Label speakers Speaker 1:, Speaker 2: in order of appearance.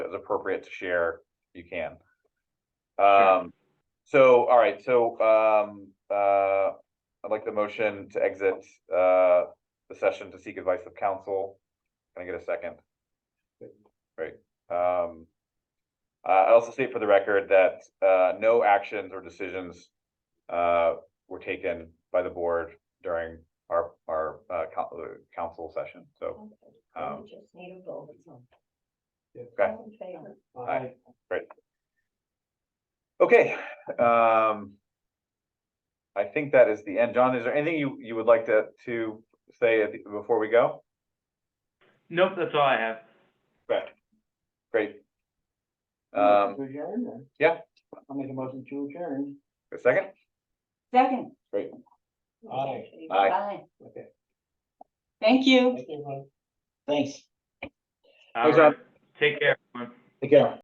Speaker 1: is appropriate to share, you can. Um, so, all right, so, um, uh, I'd like the motion to exit, uh, the session to seek advice of counsel. Can I get a second? Great, um. Uh, I also state for the record that, uh, no actions or decisions, uh, were taken by the board during our, our, uh, coun- uh, council session, so, um,
Speaker 2: We Just need a vote.
Speaker 1: okay,
Speaker 2: All in favor?
Speaker 1: Aye. okay, um. I think that is the end. John, is there anything you, you would like to, to say at the- before we go?
Speaker 3: Nope, that's all I have.
Speaker 1: Right. Great.
Speaker 4: Motion
Speaker 1: Um,
Speaker 4: to adjourn then?
Speaker 1: yeah.
Speaker 4: I'll make a motion to adjourn.
Speaker 1: a second?
Speaker 5: Second,
Speaker 4: Aye.
Speaker 1: Aye.
Speaker 2: Aye.
Speaker 4: Okay.
Speaker 5: thank you.
Speaker 4: Thank you, everyone. Thanks.
Speaker 3: All
Speaker 1: Thanks, Rob.
Speaker 3: right. Take care, everyone.
Speaker 4: Take care.